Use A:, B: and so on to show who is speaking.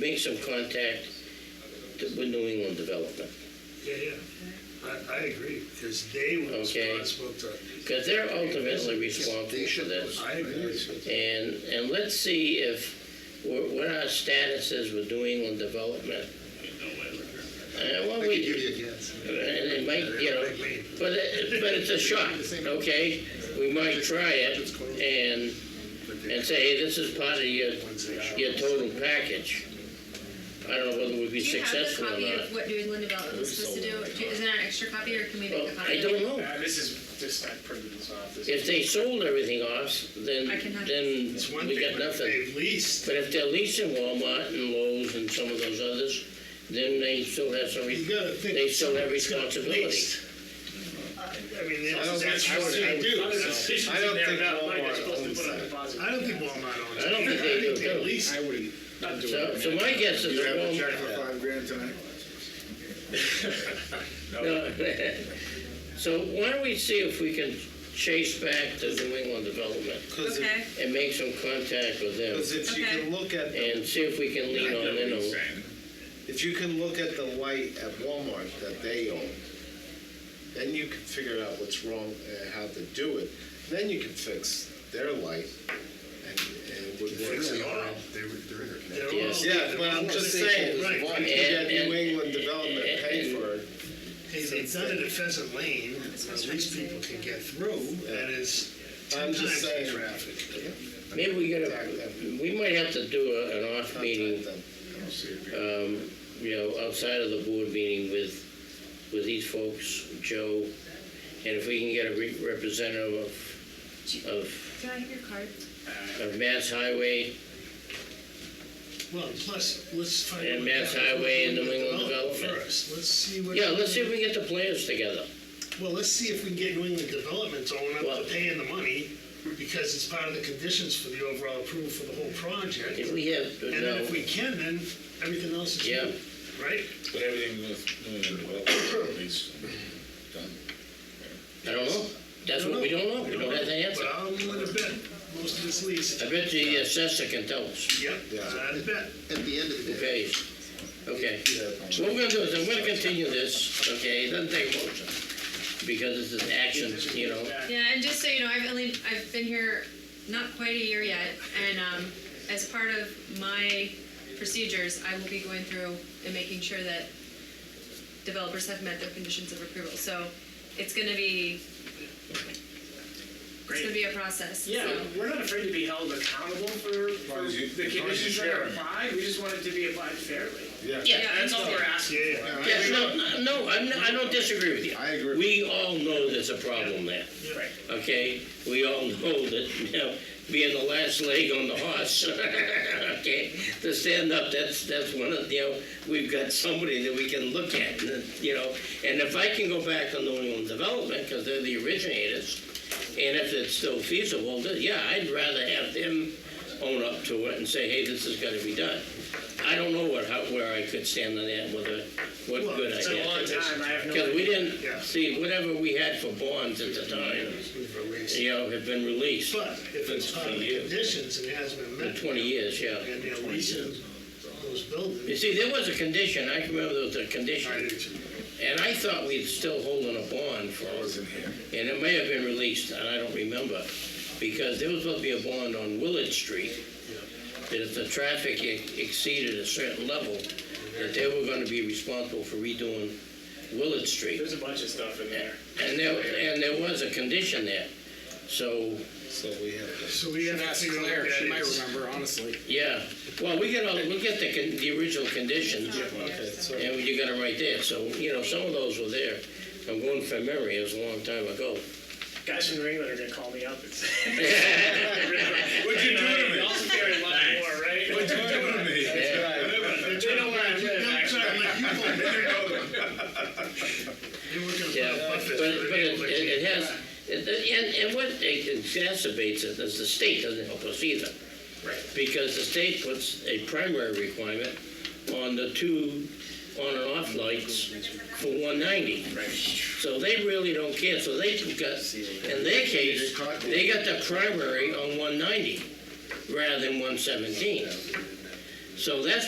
A: made some contact with New England Development,
B: Yeah, yeah. I, I agree, because they were
A: Okay.
B: responsible to,
A: because they're ultimately responsible for this.
B: I agree with you.
A: And, and let's see if, what what our status is with New England Development. And what
C: I could give
A: we,
C: you a guess.
A: and it might, you know,
B: Like me.
A: But it, but it's a shot, okay? We might try it and, and say, hey, this is part of your, your total package. I don't know whether we'd be
D: Do you have the
A: successful or
D: copy of
A: not.
D: what New England Development was supposed to do? Do- Is there an extra copy or can we
A: Well,
D: make a copy?
A: I don't know.
E: Uh, this is just not printed, it's not this.
A: If they sold everything off, then,
D: I can have-
A: then
B: It's one
A: we
B: thing,
A: got
B: but
A: nothing.
B: they leased,
A: But if they're leasing Walmart and Lowe's and some of those others, then they still have some,
B: you
A: re-
B: gotta think.
A: They still have
B: somebody's gotta
A: responsibility.
B: lease. I I mean,
C: I don't
B: that's, that's
C: think-
B: what
C: I
B: they
C: would-
B: do.
E: Other decisions
C: I don't
E: in there
C: think
E: about money
C: Walmart
E: that's supposed to
C: owns
E: put on
C: that.
E: deposit.
B: I don't think Walmart owns it.
A: I don't think they do,
B: They
A: no.
B: lease.
F: I wouldn't do
A: so,
F: it.
A: so my guess is
C: You
A: that
C: have a
A: Walmart.
C: check for five grand tonight?
A: No. So why don't we see if we can chase back the New England Development?
C: Because
D: Okay,
A: and make some contact with them
C: if you
D: Okay.
C: can look at, the-
A: and see if we can lean on them.
C: if you can look at the light at Walmart that they own, then you can figure out what's wrong and how to do it. Then you can fix their light and, and it would work.
B: Fix it
C: out.
B: all. They're all-
A: Yes.
C: Yeah, but I'm just saying, if you
B: Right.
C: can get New England Development paid for it,
B: Hey, they've done a defensive lane, at least people can get through, and it's ten
C: I'm
B: times
C: just
B: the
C: saying.
B: traffic.
A: Maybe we gotta, we might have to do a- an off meeting,
C: contact them.
A: um, you know, outside of the board meeting with, with these folks, Joe, and if we can get a re- representative of, of,
D: can I have your card?
A: of Mass Highway
B: Well, plus, let's find out.
A: And
B: what
A: Mass
B: happened with
A: Highway and New England Development.
B: First, let's see what.
A: Yeah, let's see if we can get the players together.
B: Well, let's see if we can get New England Development to own
A: Well-
B: up to paying the money, because it's part of the conditions for the overall approval for the whole project.
A: If
B: And
A: we have,
B: then if
A: no,
B: we can, then everything else is
A: uh, Yeah.
B: new, right?
G: But everything with New England Development, at least, um, done.
A: I don't know. That's what we don't know. We don't have the answer.
B: But I'll let a bet, most of this lease,
A: I bet the assessor can tell us.
B: yep, I'd bet.
C: At the end of the day.
A: Okay, okay. What we're gonna do is, I'm gonna continue this, okay, it doesn't take a motion, because it's an action, you know.
D: Yeah, and just so you know, I've only, I've been here not quite a year yet, and um, as part of my procedures, I will be going through and making sure that developers have met their conditions of approval. So it's gonna be, it's gonna be a process,
E: Yeah,
D: so.
E: we're not afraid to be held accountable for, for
G: long as you-
E: the
G: as long as you
E: conditions that
G: share
E: are
G: them.
E: applied, we just want it to be applied fairly.
D: Yeah,
E: That's all we're asking.
B: Yeah,
A: Yes, no, no, I'm, not- I don't disagree with you.
C: I agree.
A: We all know there's a problem there,
E: Right.
A: okay? We all know that, you know, being the last leg on the horse, okay? To stand up, that's, that's one of, you know, we've got somebody that we can look at, and that, you know? And if I can go back on New England Development, because they're the originators, And if it's still feasible, then yeah, I'd rather have them own up to it and say, hey, this is gonna be done. I don't know what, how, where I could stand on that, whether, what
B: Well,
A: good
E: It's been a
A: idea.
E: long time, I have no
A: Because we
B: Yeah.
A: didn't, see, whatever we had for bonds at the time,
B: we've released.
A: you know, had been released
B: But if it's part of the conditions and hasn't been
A: for
B: met,
A: twenty years, yeah.
B: and they're leasing those
A: You
B: buildings.
A: see, there was a condition, I can remember there was a condition, and I thought we'd still holding a bond for it. and it may have been released, and I don't remember, because there was supposed to be a bond on Willard Street, that if the traffic e- exceeded a certain level, that they were gonna be responsible for redoing Willard Street.
E: There's a bunch of stuff in there.
A: And there, and there was a condition there, so,
C: So we have to.
B: So we have to
F: Ask
B: figure out what
F: Claire, she
B: that
F: might
B: is.
F: remember, honestly.
A: yeah, well, we get all, we get the, con- the original conditions,
C: Okay, so
A: and you got them right there, so, you know, some of those were there. I'm going from memory, it was a long time ago.
E: Guys from New England are gonna call me up and say. What'd you do to me? Also carry a lot more, right? What'd you do to me? They know where I live,
B: I'm
E: actually.
B: sorry, like, you won't be there. You're working
A: Yeah,
B: for a
A: but,
B: buffet.
A: but it, it has, and, and what exacerbates it is the state doesn't help us either.
E: Right.
A: Because the state puts a primary requirement on the two on and off lights for one ninety. So they really don't care, so they got, in their case, they got the primary on one ninety rather than one seventeen. So that's